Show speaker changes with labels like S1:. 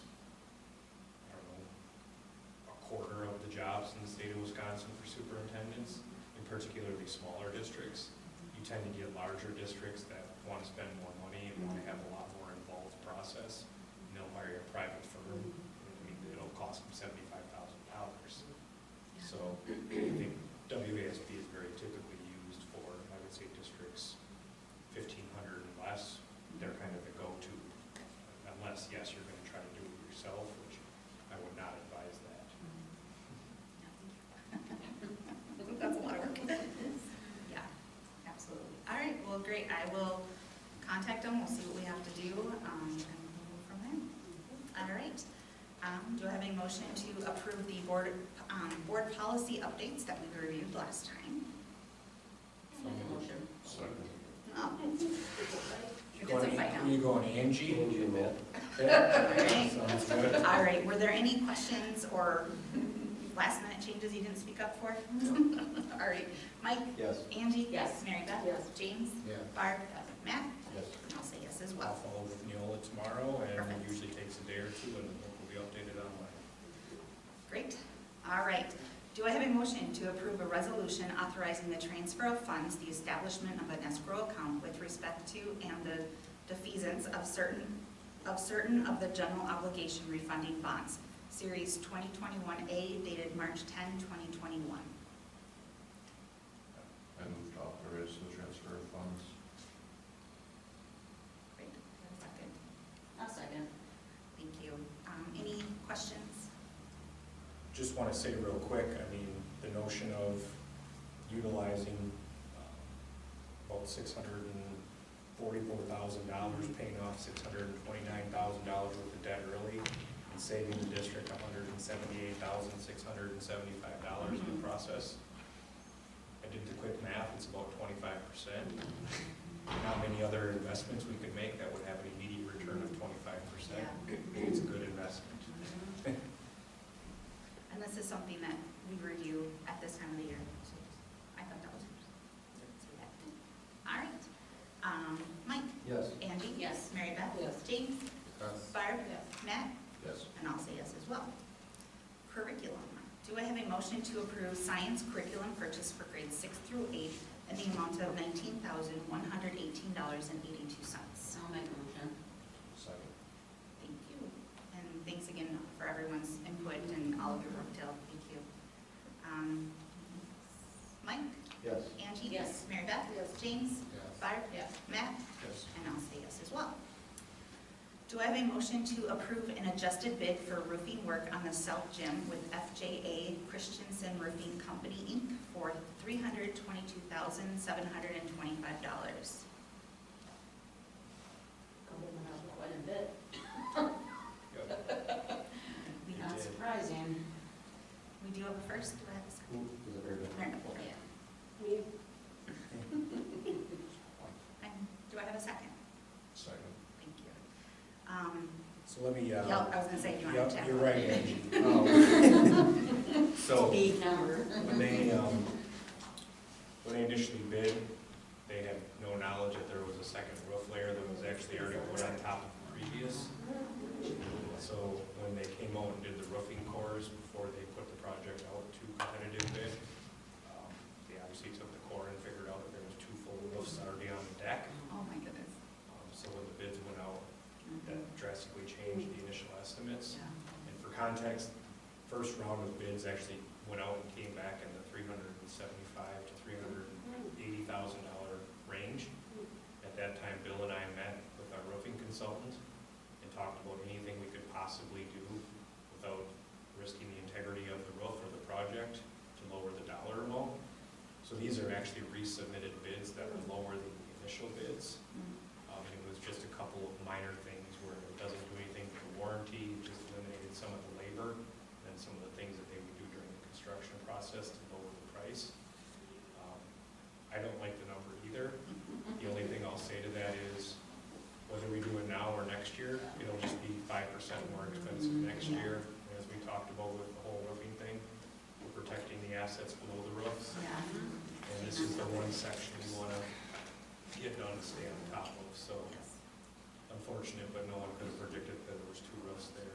S1: particularly smaller districts, you tend to get larger districts that want to spend more money and want to have a lot more involved process. And they'll hire a private firm, and I mean, it'll cost them seventy-five thousand dollars. So I think WASB is very typically used for, I would say, districts fifteen hundred and less. They're kind of the go-to, unless, yes, you're gonna try to do it yourself, which I would not advise that.
S2: That's a lot of work. Yeah, absolutely. All right, well, great, I will contact them, we'll see what we have to do, um, and we'll move from there. All right, um, do I have a motion to approve the board, um, board policy updates that we reviewed last time? Oh, It's a fight now.
S3: You going Angie?
S4: Angie, Matt.
S2: All right.
S3: Sounds good.
S2: All right, were there any questions or last minute changes you didn't speak up for? All right, Mike?
S4: Yes.
S2: Angie?
S5: Yes.
S2: Mary Beth?
S5: Yes.
S2: James?
S3: Yeah.
S2: Barb? Uh, Matt?
S4: Yes.
S2: And I'll say yes as
S1: I'll
S2: well.
S1: follow with Neola tomorrow, and
S2: Perfect.
S1: it usually takes a day or two, and the book will be updated online.
S2: Great. All right. Do I have a motion to approve a resolution authorizing the transfer of funds, the establishment of an escrow account with respect to and the defeasance of certain, of certain of the general obligation refunding bonds, Series 2021A dated March 10, 2021?
S4: I moved off the the transfer of funds.
S2: Great. Do I have a second?
S5: I'll second.
S2: Thank you. Um, Any questions?
S1: just want to say real quick, I mean, the notion of utilizing um, about six hundred and forty-four thousand dollars, paying off six hundred and twenty-nine thousand dollars worth of debt early, and saving the district hundred and seventy-eight thousand, six hundred and seventy-five dollars in the
S2: Mhm.
S1: process. I did the quick math, it's about twenty-five percent. Not many other investments we could make that would have an immediate return of twenty-five percent. It's a good investment.
S2: And this is something that we review at this time of the year. so I thought that was. so that- All right. Um, Mike?
S4: Yes.
S2: Angie?
S5: Yes.
S2: Mary Beth?
S5: Yes.
S2: James?
S4: Yes.
S2: Barb? Matt?
S4: Yes.
S2: And I'll say yes as well. Curriculum. Do I have a motion to approve science curriculum purchase for grades six through eight in the amount of nineteen thousand, one hundred eighteen dollars and eighty-two cents?
S5: I'll make a motion.
S4: Second.
S2: Thank you. And thanks again for everyone's input and all of your work, Dale. Thank you. Um, Mike?
S4: Yes.
S2: Angie?
S5: Yes.
S2: Mary Beth?
S5: Yes.
S2: James?
S4: Yes.
S2: Barb?
S5: Yes.
S2: Matt?
S4: Yes.
S2: And I'll say yes as well. Do I have a motion to approve an adjusted bid for roofing work on the South Gym with FJA Christensen Roofing Company, Inc. for $322,725?
S5: Quite a bit.
S1: Yep. You
S5: Not
S1: did.
S5: surprising.
S2: We do have a first, do I have a second?
S4: Is it very good?
S1: Mm-hmm.
S2: Mary Beth, okay. And Do I have a second?
S4: Second.
S2: Thank you. Um,
S1: So let me, uh.
S2: yeah, I was gonna say, do you want
S1: Yep,
S2: to check?
S1: you're right, Angie.
S4: Oh,
S1: Um, So,
S5: Big number.
S1: when they, um, when they initially bid, they had no knowledge that there was a second roof layer that was actually already put on top of the previous. So when they came out and did the roofing cores before they put the project out to competitive bid, um, they obviously took the core and figured out that there was two full roofs already on the deck.
S2: Oh, my goodness.
S1: Um, So when the bids went out, that
S2: Mhm.
S1: drastically changed the initial estimates.
S2: Yeah.
S1: And for context, first round of bids actually went out and came back in the three hundred and seventy-five to three hundred and eighty thousand dollar range. At that time, Bill and I met with our roofing consultant and talked about anything we could possibly do without risking the integrity of the roof or the project to lower the dollar amount. So these are actually resubmitted bids that were lower than the initial bids.
S2: Mm.
S1: Um, it was just a couple of minor things where it doesn't do anything for warranty, it just eliminated some of the labor and some of the things that they would do during the construction process to lower the price. Um, I don't like the number either. The only thing I'll say to that is, whether we do it now or next year, it'll just be five percent more expensive next year. And As we talked about with the whole roofing thing, we're protecting the assets below the roofs.
S2: Yeah.
S1: Mm-hmm. And this is the one section we want to get done to stay on top of, so
S2: Yes.
S1: unfortunate, but no one could have predicted that there was two roofs there.